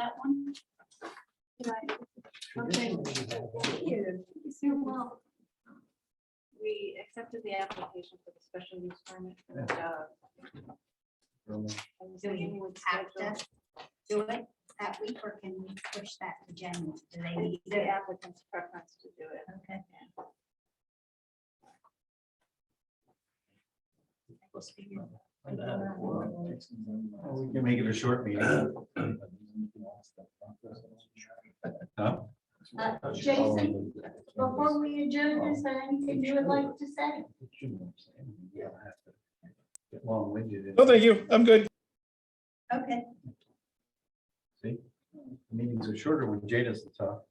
that one? Did I- Okay. Thank you. You're welcome. We accepted the application for the special use permit. and, uh, and Do we you would have schedule- to do it that week or can we push that to January? Do they need The it? applicant's preference to do it. Okay. uh, We can make it a short meeting. Huh? Uh, Jason, Before we adjourn, is there anything you would like to say? Get long-winded. No, thank you. I'm good. Okay. See? Meetings are shorter when Jada's the top.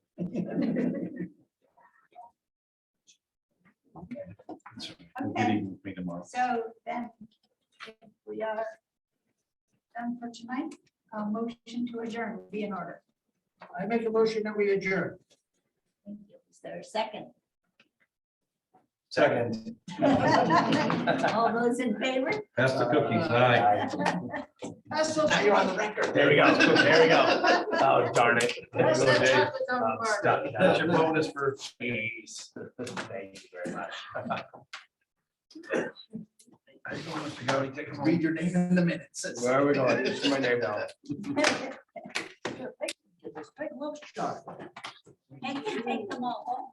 We'll get Okay. even with me tomorrow. So then if we are done for tonight. A motion to adjourn will be in order. I make a motion that we adjourn. Thank you. Is there a second? Second. All those in favor? Pass the cookies, aye. That's so. Now you're on the record. There we go. There we go. Oh, darn it. There That's you the go, Dave. chocolate on the I'm bar. uh, stuck. That's your bonus for. Jeez. Thank you very much. Read your name in the minutes. Where are we going? Just my name down. Take a look, Scott. I can take them all.